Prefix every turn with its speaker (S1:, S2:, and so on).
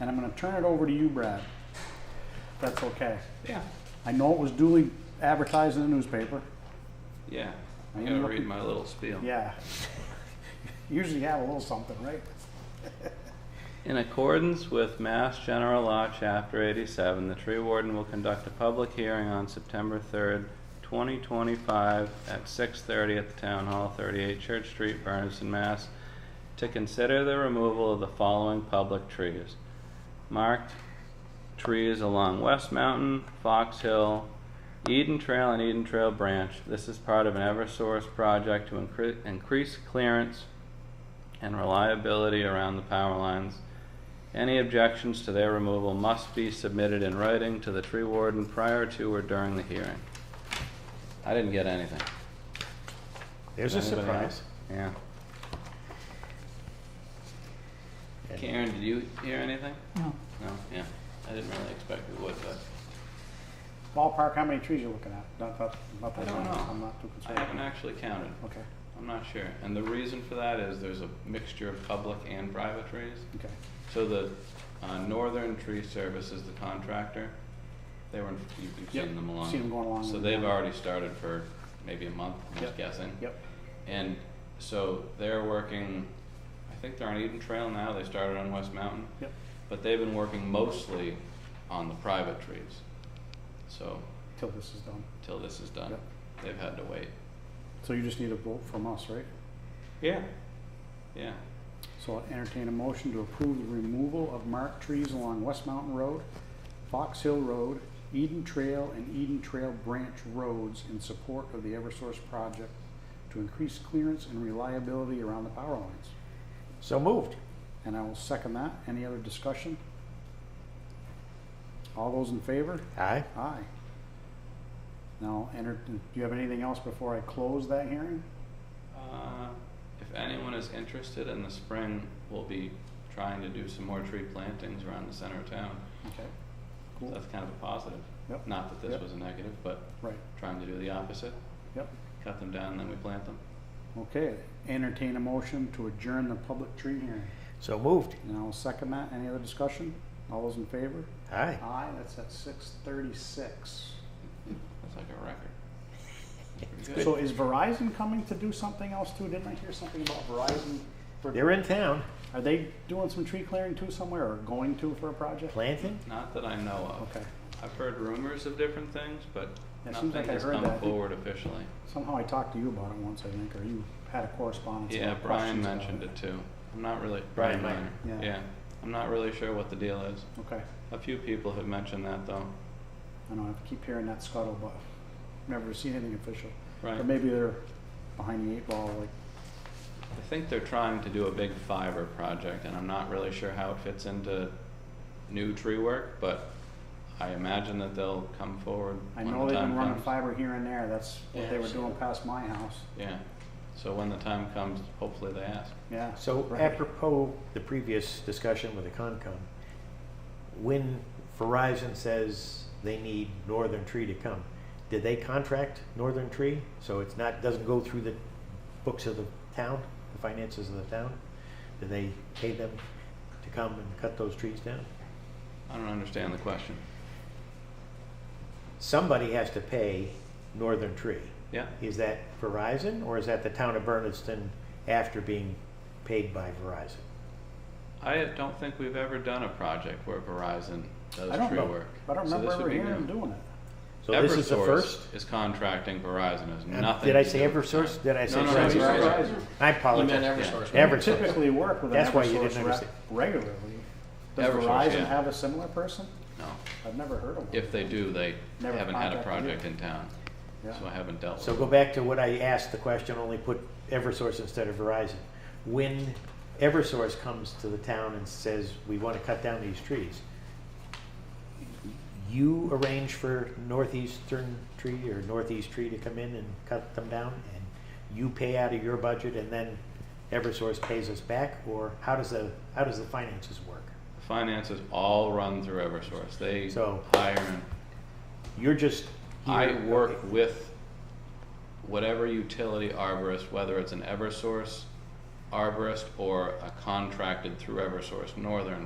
S1: and I'm gonna turn it over to you, Brad. if That's okay.
S2: Yeah.
S1: I know it was duly advertised in the newspaper.
S2: Yeah.
S1: I
S2: I
S1: am
S2: gotta read
S1: looking-
S2: my little spiel.
S1: Yeah. Usually have a little something, right?
S2: In accordance with Mass General Law, Chapter 87, the tree warden will conduct a public hearing on September 3rd, 2025, at 6:30 at the Town Hall, 38 Church Street, Berniston, Mass, to consider the removal of the following public trees. Marked trees along West Mountain, Fox Hill, Eden Trail, and Eden Trail Branch. This is part of an Eversource project to incre- increase clearance and reliability around the power lines. Any objections to their removal must be submitted in writing to the tree warden prior to or during the hearing. I didn't get anything.
S3: There's a
S2: Anybody
S3: surprise.
S2: else? Yeah. Karen, did you hear anything?
S4: No.
S2: No, yeah. I didn't really expect we would, but
S1: Ballpark, how many trees you looking at? Not that, not
S2: I
S1: that
S2: don't
S1: many.
S2: know.
S1: I'm not too concerned.
S2: I haven't actually counted.
S1: Okay,
S2: I'm not sure. And the reason for that is there's a mixture of public and private trees.
S1: okay.
S2: So the uh, Northern Tree Service is the contractor. They were, in- you- you've
S1: Yep,
S2: seen them along.
S1: seen them going along
S2: So
S1: with
S2: they've
S1: them.
S2: already started for maybe a month, I'm
S1: Yep,
S2: just guessing.
S1: Yep,
S2: And so they're working, I think they're on Eden Trail now, they started on West Mountain.
S1: yep.
S2: But they've been working mostly on the private trees. So
S1: Till this is done.
S2: till this is done,
S1: Yep.
S2: they've had to wait.
S1: So you just need a vote from us, right?
S2: Yeah. Yeah.
S1: So I'll entertain a motion to approve the removal of marked trees along West Mountain Road, Fox Hill Road, Eden Trail, and Eden Trail Branch Roads in support of the Eversource project to increase clearance and reliability around the power lines.
S3: So moved.
S1: And I will second that. Any other discussion? All those in favor?
S3: Aye.
S1: Aye. Now, enter, do you have anything else before I close that hearing?
S2: Uh, If anyone is interested in the spring, we'll be trying to do some more tree plantings around the center of town.
S1: Okay,
S2: So
S1: Cool.
S2: That's kind of a positive.
S1: Yep.
S2: Not that this
S1: Yep.
S2: was a negative, but
S1: right,
S2: trying to do the opposite,
S1: yep.
S2: cut them down and then we plant them.
S1: Okay, entertain a motion to adjourn the public tree hearing.
S3: So moved.
S1: And I'll second that. Any other discussion? All those in favor?
S3: Aye.
S1: Aye, that's at six thirty-six.
S2: That's like a record. That's pretty
S1: So
S2: good.
S1: is Verizon coming to do something else too? Didn't I hear something about Verizon? for-
S3: They're in town
S1: Are they doing some tree clearing too somewhere or going to for a project?
S3: planting.
S2: Not that I know of.
S1: Okay,
S2: I've heard rumors of different things, but
S1: Yeah, it seems
S2: nothing
S1: like I
S2: has
S1: heard
S2: come
S1: that.
S2: forward officially.
S1: somehow I talked to you about it once, I think, or you had a correspondence.
S2: Yeah,
S1: about
S2: Brian
S1: questions about
S2: mentioned it too. I'm not really,
S3: Brian
S2: Brian Miner.
S1: Miner. Yeah.
S2: Yeah, I'm not really sure what the deal is.
S1: Okay,
S2: A few people have mentioned that though.
S1: I know, I keep hearing that scuttle, but never seen anything official.
S2: Right.
S1: Or maybe they're behind the eight ball, like,
S2: I think they're trying to do a big fiber project, and I'm not really sure how it fits into new tree work, but I imagine that they'll come forward
S1: I
S2: when
S1: know
S2: the
S1: they've
S2: time
S1: been running
S2: comes.
S1: fiber here and there, that's what
S2: Yeah,
S1: they were
S2: so-
S1: doing past my house,
S2: Yeah. So when the time comes, hopefully they ask.
S1: yeah.
S3: So
S1: right.
S3: apropos the previous discussion with the Concom, when Verizon says they need Northern Tree to come, did they contract Northern Tree? So it's not, doesn't go through the books of the town, the finances of the town? Did they pay them to come and cut those trees down?
S2: I don't understand the question.
S3: Somebody has to pay Northern Tree.
S2: Yeah?
S3: Is that Verizon or is that the town of Berniston after being paid by Verizon?
S2: I don't think we've ever done a project where Verizon does
S1: I don't
S2: tree
S1: know.
S2: work.
S1: I don't
S2: So
S1: remember
S2: this
S1: ever
S2: would be
S1: hearing them
S2: new.
S1: doing it.
S3: So this is the
S2: Eversource
S3: first?
S2: is contracting Verizon. Has
S3: Uh,
S2: nothing.
S3: Did I
S2: to
S3: say
S2: do with
S3: Eversource?
S2: that.
S3: Did I
S2: No,
S3: say
S2: no, no,
S3: Verizon?
S2: you said
S1: Verizon.
S3: I
S5: You meant
S3: apologize.
S5: Eversource.
S3: Yeah.
S1: We
S3: Eversource.
S1: typically work with an
S3: That's why you didn't
S1: Eversource rep
S3: understand.
S1: regularly. Does
S2: Eversource,
S1: Verizon
S2: yeah.
S1: have a similar person?
S2: No.
S1: I've never heard of one.
S2: If they do, they
S1: Never
S2: haven't had a
S1: contacted you.
S2: project in town.
S1: Yeah.
S2: So I haven't dealt with
S3: So
S2: it.
S3: go back to what I asked the question, only put Eversource instead of Verizon. When Eversource comes to the town and says, we want to cut down these trees, you arrange for northeastern tree or northeast tree to come in and cut them down? And you pay out of your budget and then Eversource pays us back? Or how does the, how does the finances work?
S2: Finances all run through Eversource. They
S3: So-
S2: hire and
S3: You're just. here-
S2: I work with whatever utility arborist, whether it's an Eversource arborist or a contracted through Eversource Northern